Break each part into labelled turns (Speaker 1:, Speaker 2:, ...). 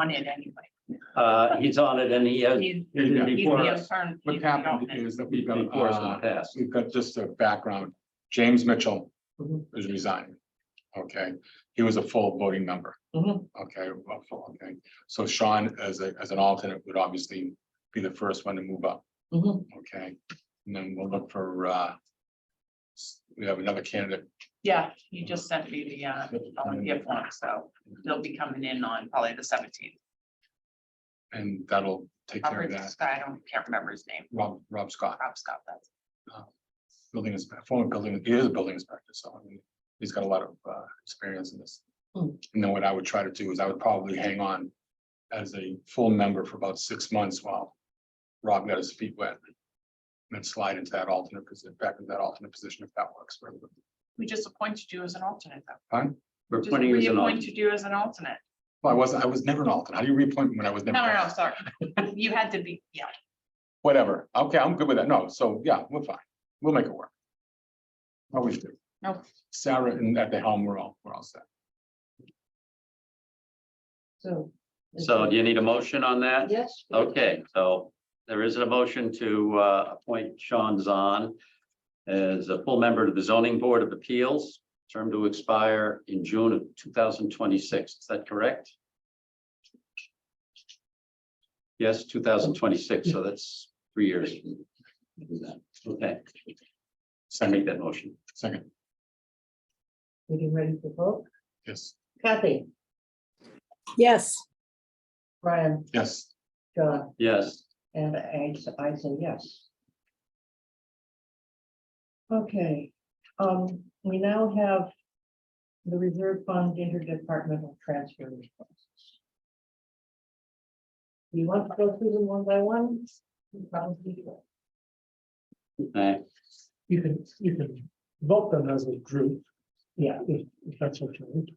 Speaker 1: on it anyway.
Speaker 2: Uh, he's on it and he has.
Speaker 1: He's-
Speaker 2: it is
Speaker 1: he's the
Speaker 2: Before us,
Speaker 1: attorney-
Speaker 3: What happened is that we've got,
Speaker 2: before us in the
Speaker 3: uh,
Speaker 2: past.
Speaker 3: we've got just a background. James Mitchell
Speaker 4: Mhm.
Speaker 3: is resigning. Okay, he was a full voting member.
Speaker 4: Mhm.
Speaker 3: Okay, well, full, okay. So Sean as a, as an alternate would obviously be the first one to move up.
Speaker 4: Mhm.
Speaker 3: Okay, and then we'll look for, uh. s- We have another candidate.
Speaker 1: Yeah, you just sent me the, uh, volunteer form, so they'll be coming in on probably the seventeenth.
Speaker 3: And that'll take care of
Speaker 1: Robert
Speaker 3: that.
Speaker 1: Scott, I don't, can't remember his name,
Speaker 3: Rob, Rob Scott,
Speaker 1: Rob Scott, that's.
Speaker 3: building is, former building, he is a building inspector, so I mean, he's got a lot of uh experience in this.
Speaker 4: Hmm.
Speaker 3: And then what I would try to do is I would probably hang on as a full member for about six months while Rob got his feet wet. And then slide into that alternate position, back into that alternate position if that works for everybody.
Speaker 1: We just appointed you as an alternate though.
Speaker 2: We're
Speaker 1: Just
Speaker 2: putting you as an alternate.
Speaker 1: reappointed you as an alternate.
Speaker 3: Well, I wasn't, I was never an alternate. How do you reappoint me when I was never?
Speaker 1: No,
Speaker 3: an
Speaker 1: no, no,
Speaker 3: alternate?
Speaker 1: sorry. You had to be, yeah,
Speaker 3: Whatever. Okay, I'm good with that. No, so yeah, we're fine. We'll make it work. Always do.
Speaker 1: No.
Speaker 3: Sarah and at the helm, we're all, we're all set.
Speaker 4: So. is
Speaker 2: So
Speaker 4: there-
Speaker 2: do you need a motion on that?
Speaker 4: Yes.
Speaker 2: Okay, so there is a motion to uh, appoint Sean Zahn as a full member to the zoning board of appeals, term to expire in June of two thousand twenty-six. Is that correct? Yes, two thousand twenty-six, so that's three years. Okay, I
Speaker 3: Second,
Speaker 2: make that motion.
Speaker 3: second,
Speaker 4: We getting ready for vote?
Speaker 3: yes,
Speaker 4: Kathy,
Speaker 5: Yes,
Speaker 4: Brian,
Speaker 3: yes.
Speaker 4: John,
Speaker 2: Yes,
Speaker 4: and I, s- I say yes. Okay, um, we now have the reserve fund interdepartmental transfer requests. Do you want to go through them one by one? You Probably do.
Speaker 2: okay.
Speaker 6: You can, you can vote them as a group,
Speaker 4: Yeah,
Speaker 6: if, if that's what you need.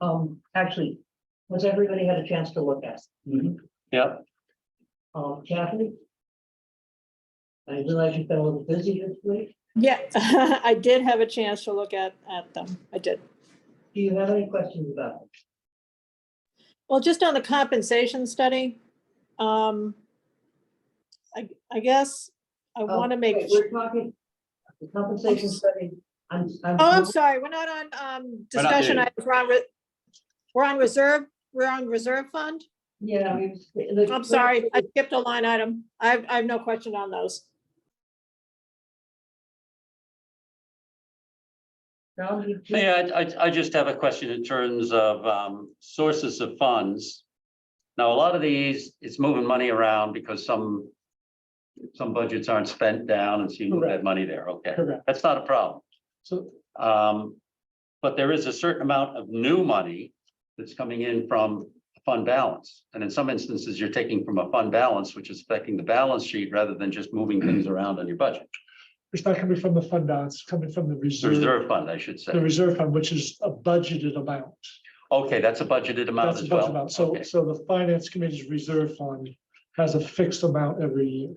Speaker 4: um, actually, has everybody had a chance to look at? it?
Speaker 2: Yep,
Speaker 4: Um, Kathy? I realize you've been a little busy this week.
Speaker 5: yeah, I did have a chance to look at, at them. I did.
Speaker 4: Do you have any questions about it?
Speaker 5: Well, just on the compensation study, um, I, I guess I want to
Speaker 4: Um,
Speaker 5: make,
Speaker 4: wait, We're talking, the compensation study, I'm, I'm.
Speaker 5: oh, I'm sorry, we're not on, um,
Speaker 3: We're not
Speaker 5: discussion.
Speaker 3: there.
Speaker 5: items. We're on re- We're on reserve, we're on reserve fund.
Speaker 4: Yeah, we.
Speaker 5: I'm sorry, I skipped a line item. I have, I have no question on those.
Speaker 2: May I, I, I just have a question in terms of, um, sources of funds. Now, a lot of these, it's moving money around because some, some budgets aren't spent down and so you move that money there, okay,
Speaker 6: Correct.
Speaker 2: that's not a problem.
Speaker 6: So
Speaker 2: Um, but there is a certain amount of new money that's coming in from fund balance. And in some instances, you're taking from a fund balance, which is affecting the balance sheet rather than just moving things around on your budget.
Speaker 6: it's not coming from the fund balance, it's coming from the reserve,
Speaker 2: Reserve fund, I should say.
Speaker 6: the reserve fund, which is a budgeted amount.
Speaker 2: Okay, that's a budgeted amount
Speaker 6: That's a
Speaker 2: as
Speaker 6: budget
Speaker 2: well.
Speaker 6: amount. So,
Speaker 2: Okay.
Speaker 6: so the finance committee's reserve fund has a fixed amount every year.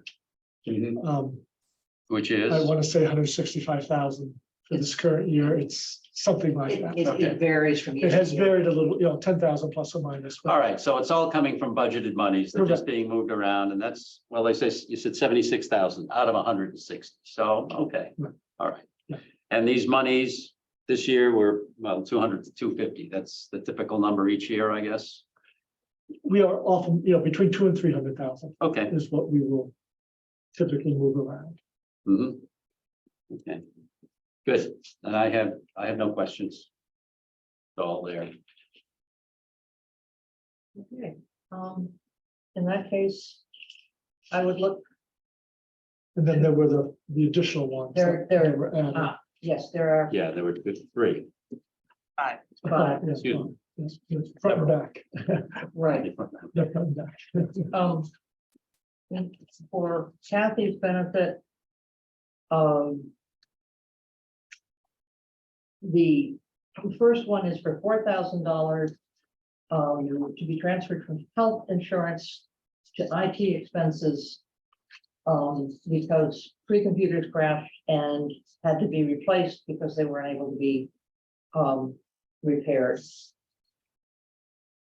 Speaker 2: Mhm.
Speaker 6: Um,
Speaker 2: Which is.
Speaker 6: I want to say hundred sixty-five thousand for this current year. It's something like that.
Speaker 2: okay.
Speaker 4: varies from. year
Speaker 6: It
Speaker 4: to
Speaker 6: has
Speaker 4: year.
Speaker 6: varied a little, you know, ten thousand plus or minus. but-
Speaker 2: All right, so it's all coming from budgeted monies, they're just being moved around, and that's, well, they say, you said seventy-six thousand out of hundred and sixty, so, okay, all
Speaker 6: Yeah.
Speaker 2: right. And these monies this year were, well, two hundred to two fifty, that's the typical number each year, I guess,
Speaker 6: We are often, you know, between two and three hundred thousand
Speaker 2: okay.
Speaker 6: is what we will typically move around.
Speaker 2: mhm. Okay, good, and I have, I have no questions. It's all there,
Speaker 4: Okay, um, in that case, I would look,
Speaker 6: And then there were the, the additional ones. that
Speaker 4: There- there-
Speaker 6: were added.
Speaker 4: ah, yes, there are,
Speaker 2: yeah, there were three,
Speaker 6: Yeah,
Speaker 4: five,
Speaker 6: yes,
Speaker 2: Excuse
Speaker 6: front- yes, yes, Front and back,
Speaker 4: right.
Speaker 2: okay,
Speaker 6: Yeah, front and back.
Speaker 4: um. and For Kathy's benefit. Um. The first one is for four thousand dollars. Um, to be transferred from health insurance to IT expenses. Um, because three computers crashed and had to be replaced because they were unable to be. Um, repaired.